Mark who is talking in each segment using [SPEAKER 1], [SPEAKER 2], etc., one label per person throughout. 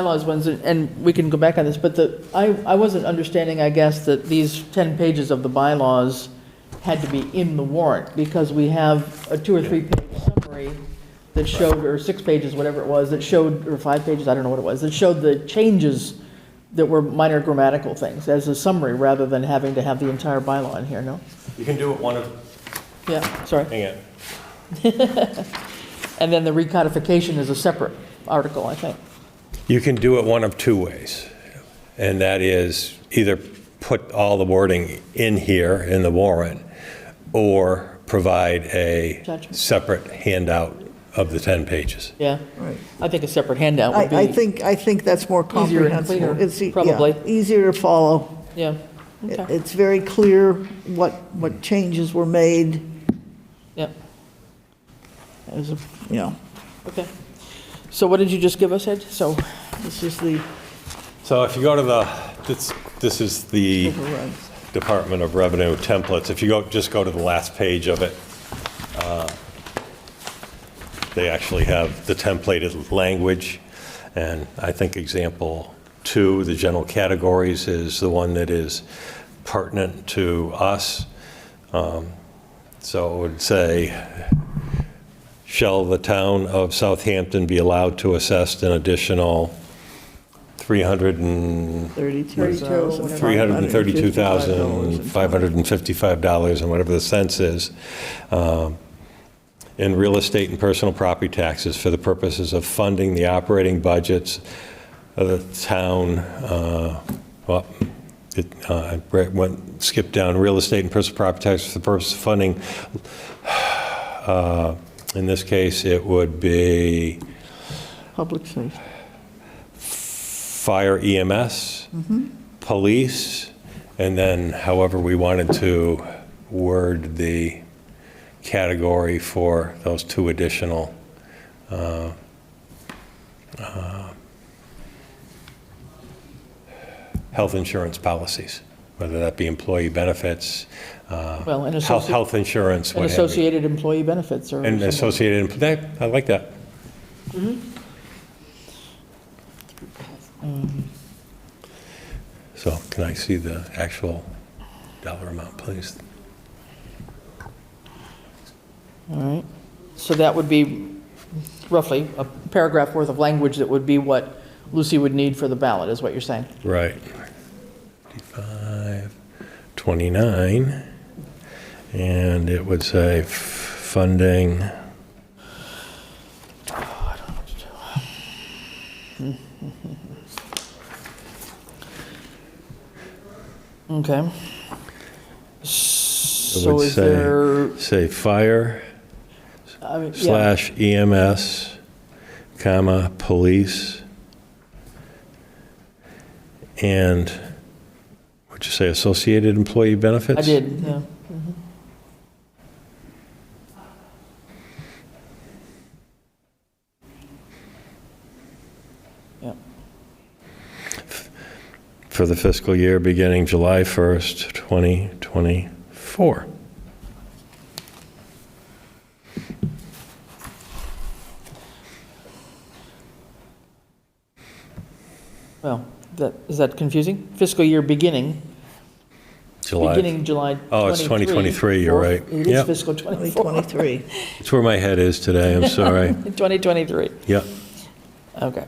[SPEAKER 1] bylaws ones, and we can go back on this, but the, I, I wasn't understanding, I guess, that these 10 pages of the bylaws had to be in the warrant, because we have a two or three page summary that showed, or six pages, whatever it was, that showed, or five pages, I don't know what it was, that showed the changes that were minor grammatical things as a summary, rather than having to have the entire bylaw in here, no?
[SPEAKER 2] You can do it one of,
[SPEAKER 1] Yeah, sorry.
[SPEAKER 2] hang on.
[SPEAKER 1] And then the recodification is a separate article, I think.
[SPEAKER 2] You can do it one of two ways, and that is either put all the wording in here in the warrant, or provide a
[SPEAKER 1] Judgment.
[SPEAKER 2] separate handout of the 10 pages.
[SPEAKER 1] Yeah.
[SPEAKER 3] Right.
[SPEAKER 1] I think a separate handout
[SPEAKER 3] I,
[SPEAKER 1] would be.
[SPEAKER 3] I think, I think that's more
[SPEAKER 1] Easier and
[SPEAKER 3] comprehensible.
[SPEAKER 1] cleaner,
[SPEAKER 3] It's e- yeah,
[SPEAKER 1] probably.
[SPEAKER 3] Easier to follow.
[SPEAKER 1] Yeah.
[SPEAKER 3] It-
[SPEAKER 1] Okay.
[SPEAKER 3] It's very clear what, what changes were made,
[SPEAKER 1] Yeah.
[SPEAKER 3] as, a- you know,
[SPEAKER 1] Okay. So what did you just give us, Ed? So,
[SPEAKER 3] this is the
[SPEAKER 2] So if you go to the, this, this is the
[SPEAKER 3] override.
[SPEAKER 2] Department of Revenue templates. If you go, just go to the last page of it, uh, they actually have the templated language. And I think example two, the general categories, is the one that is pertinent to us. Um, So it would say, shall the town of Southampton be allowed to assess an additional 300 and
[SPEAKER 3] 32,000.
[SPEAKER 2] $332,555 and whatever the cents is um, in real estate and personal property taxes for the purposes of funding the operating budgets of the town, uh, well, it, uh, I re- went, skipped down, real estate and personal property taxes for the purpose of funding. uh, In this case, it would be
[SPEAKER 3] Public safety.
[SPEAKER 2] fire EMS, police, and then however we wanted to word the category for those two additional uh, uh, health insurance policies, whether that be employee benefits, uh,
[SPEAKER 1] well, an
[SPEAKER 2] health
[SPEAKER 1] associate,
[SPEAKER 2] health insurance,
[SPEAKER 1] an
[SPEAKER 2] what have you.
[SPEAKER 1] associated employee benefits or.
[SPEAKER 2] And
[SPEAKER 1] something.
[SPEAKER 2] associated, that- I like that.
[SPEAKER 1] Mm-hmm.
[SPEAKER 2] Um, So can I see the actual dollar amount, please?
[SPEAKER 1] All right. So that would be roughly a paragraph worth of language that would be what Lucy would need for the ballot, is what you're saying?
[SPEAKER 2] Right. 55, 29, and it would say f- funding.
[SPEAKER 1] Okay.
[SPEAKER 2] would
[SPEAKER 1] So is
[SPEAKER 2] say-
[SPEAKER 1] there,
[SPEAKER 2] Say fire
[SPEAKER 1] I mean, yeah,
[SPEAKER 2] slash EMS, comma, police, and, what'd you say, associated employee benefits?
[SPEAKER 1] I did, yeah.
[SPEAKER 2] For the fiscal year beginning July 1st, 2024.
[SPEAKER 1] Well, that, is that confusing? Fiscal year beginning,
[SPEAKER 2] July.
[SPEAKER 1] beginning July 23.
[SPEAKER 2] Oh, it's 2023, you're
[SPEAKER 1] Or-
[SPEAKER 2] right.
[SPEAKER 1] It is
[SPEAKER 2] Yep.
[SPEAKER 1] fiscal 24,
[SPEAKER 3] 2023.
[SPEAKER 2] It's where my head is today, I'm sorry.
[SPEAKER 1] 2023,
[SPEAKER 2] Yep,
[SPEAKER 1] okay.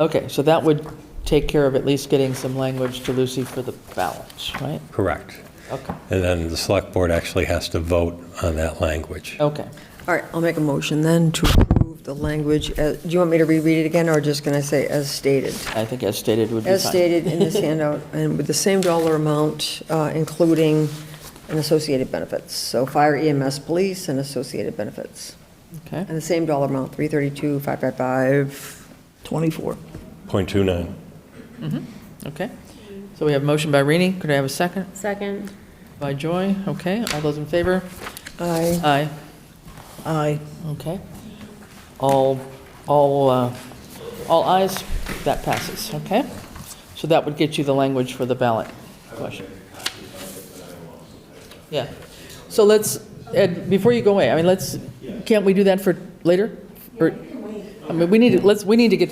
[SPEAKER 1] Okay, so that would take care of at least getting some language to Lucy for the balance, right?
[SPEAKER 2] correct.
[SPEAKER 1] Okay,
[SPEAKER 2] And then the select board actually has to vote on that language.
[SPEAKER 1] okay.
[SPEAKER 4] All right, I'll make a motion then to approve the language. as- Do you want me to reread it again, or just going to say as stated?
[SPEAKER 1] I think as stated would be fine.
[SPEAKER 4] As stated in this handout, and with the same dollar amount, uh, including an associated benefits. So fire EMS, police, and associated benefits.
[SPEAKER 1] Okay,
[SPEAKER 4] And the same dollar amount, 332, 555.
[SPEAKER 3] 24.
[SPEAKER 2] Point two nine.
[SPEAKER 1] okay. So we have motion by Rini, could I have a second?
[SPEAKER 5] Second.
[SPEAKER 1] By Joy, okay, all those in favor?
[SPEAKER 4] Aye.
[SPEAKER 1] Aye.
[SPEAKER 3] Aye.
[SPEAKER 1] Okay. All, all, uh, all ayes, that passes, okay? So that would get you the language for the ballot question. Yeah. So let's, Ed, before you go away, I mean, let's, can't we do that for later? Or- I mean, we need, to let's, we need to get